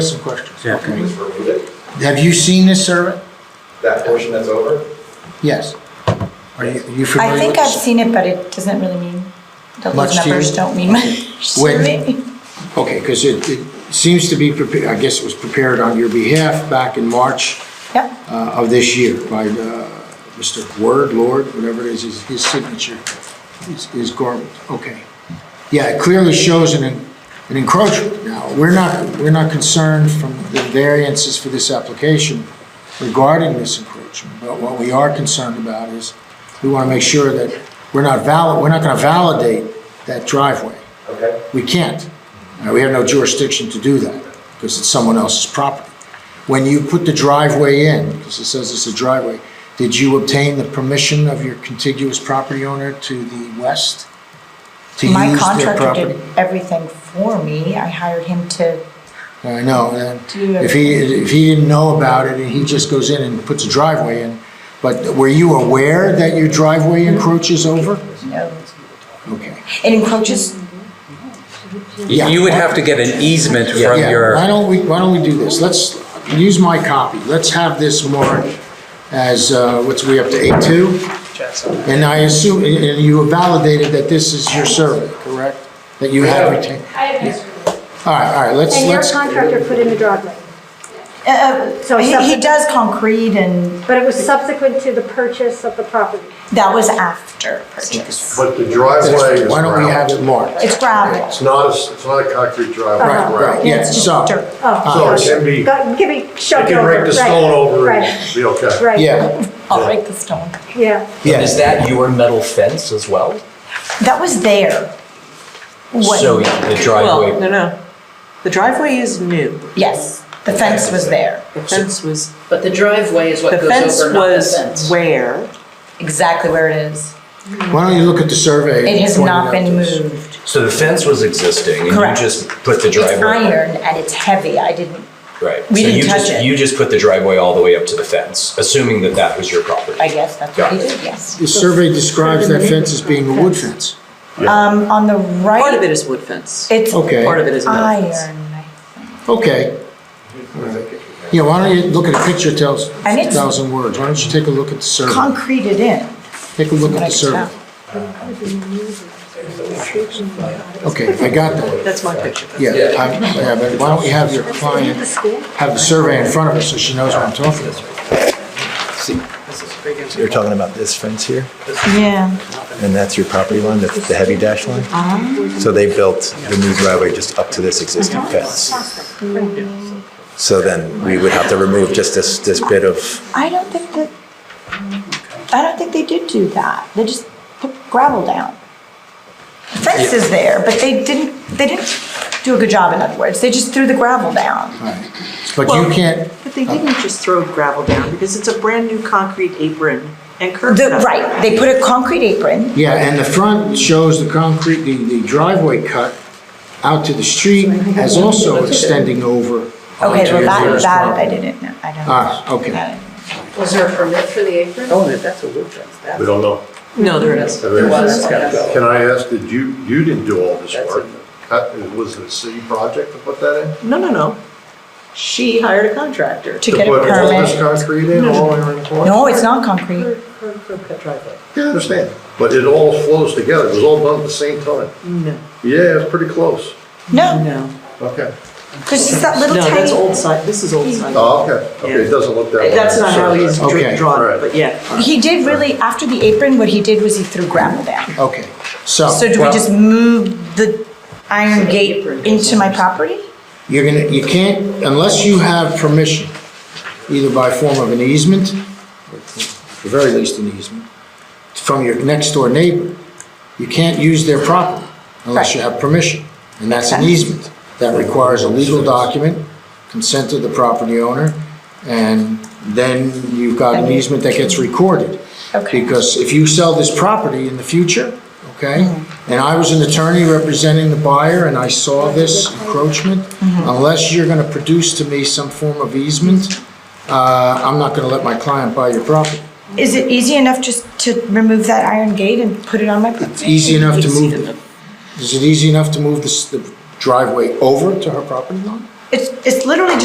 Some questions. Yeah. Can we just remove it? Have you seen this survey? That portion that's over? Yes. Are you you familiar I with think I've this? seen it, but it doesn't really mean, Much those to you? numbers don't mean much to When- me. Okay, because it, it seems to be prepared, I guess it was prepared on your behalf back in March Yep, uh, of this year by uh, Mr. Word, Lord, whatever it is, his- his signature is- is garbage. Okay. Yeah, it clearly shows an en- an encroachment. Now, we're not, we're not concerned from the variances for this application regarding this encroachment, but what we are concerned about is we want to make sure that we're not valid, we're not going to validate that driveway. Okay. We can't. Uh, We have no jurisdiction to do that because it's someone else's property. When you put the driveway in, because it says it's a driveway, did you obtain the permission of your contiguous property owner to the west? to use my their contractor property? did everything for me, I hired him to, I know, and Do if he, if he didn't know about it, and he just goes in and puts a driveway in, but were you aware that your driveway encroaches over? you know, Okay. it encroaches, Yeah. You you would have to get an easement from Yeah, your, why don't we, why don't we do this? Let's use my copy. Let's have this marked as, uh, what's we up to, A2? And I assume, and and you validated that this is your survey, correct? That you have retained? I have no screw. All right, all right, let's, And your let's, contractor put in the driveway, uh, uh, So he, he subsequent- does concrete and but it was subsequent to the purchase of the property. that was after purchase. But the driveway is why don't we have gravel. it marked? It's gravel, It's not, a s- it's not a concrete driveway. Uh-huh. Right, right, yeah, it's just so, dirt. Oh, So it can be, it Go- Give me, shove it Uh, can over. rake the right, stone over and Right, be okay. right. yeah, I'll break the stone. Yeah. And Is yeah. that your metal fence as well? That was there. When- So the Well, driveway, no, no. The driveway is new. Yes, the fence was there, The fence was, But the driveway is the what goes fence over, not the fence. was where? exactly where it is. Why don't you look at the survey? It and has point not out been to us? moved. so the fence was existing and you Correct. just put the It's driveway? iron and it's heavy, I didn't, Right. We So didn't you touch just- it. You just put the driveway all the way up to the fence, assuming that that was your property? I guess that's what he did, yes. The survey describes that fence as being a wood fence. Um, on the right. Ah, Part of it is wood fence. It's Okay. Part of it is metal fence. iron. Okay. All right. Yeah, why don't you look at a picture, tells And it's- 1,000 words. Why don't you take a look at the survey? Concreted in. Take a look at Like the survey. Okay, I got that. That's my picture. Yeah, I- yeah, but why don't we have your client have the survey in front of her so she knows what I'm talking about? You're talking about this fence here, Yeah. and that's your property line, that's the heavy dash line? So they built the new driveway just up to this existing fence. So then we would have to remove just this, this bit of, I don't think that, I don't think they did do that. They just put gravel down. The fence is there, but they didn't, they didn't do a good job, in other words. They just threw the gravel down. Right. But you can't, But they didn't just throw gravel down because it's a brand-new concrete apron and curb. The, cut. right, they put a concrete apron. yeah, and the front shows the concrete, the the driveway cut out to the street as also extending over. onto Okay, well, your that, neighbor's that I property. didn't know. I don't. Ah, okay. That- Was there a permit for the apron? We don't know. No, there it is. There was, yes. Can I ask, did you, you didn't do all this work? How- Was it a city project to put that in? No, no, no. She hired a contractor. To get a put all this permit. concrete in, all in the corner? No, it's not concrete. Yeah, I understand, but it all flows together, it was all done at the same time. No, Yeah, it's pretty close. No, no. Okay. because it's that No, little tiny. that's old site. This is old site. Oh, okay, okay, it doesn't look that way. That's not how he's Okay. dr- drawn it, Alright. but yeah. He did really, after the apron, what he did was he threw gravel down. Okay, so. So do we just move the iron gate into my property? You're gonna, you can't, unless you have permission, either by form of an easement, or at the very least an easement, from your next door neighbor, you can't use their property unless you have permission. And that's an easement. That requires a legal document, consent of the property owner, and then you've got an easement that gets recorded. Okay. Because if you sell this property in the future, okay? And I was an attorney representing the buyer and I saw this encroachment, unless you're gonna produce to me some form of easement, uh, I'm not gonna let my client buy your property. Is it easy enough just to remove that iron gate and put it on my property? It's easy enough to Easy move, is it easy enough to move this, the driveway over to her property line? It's, it's literally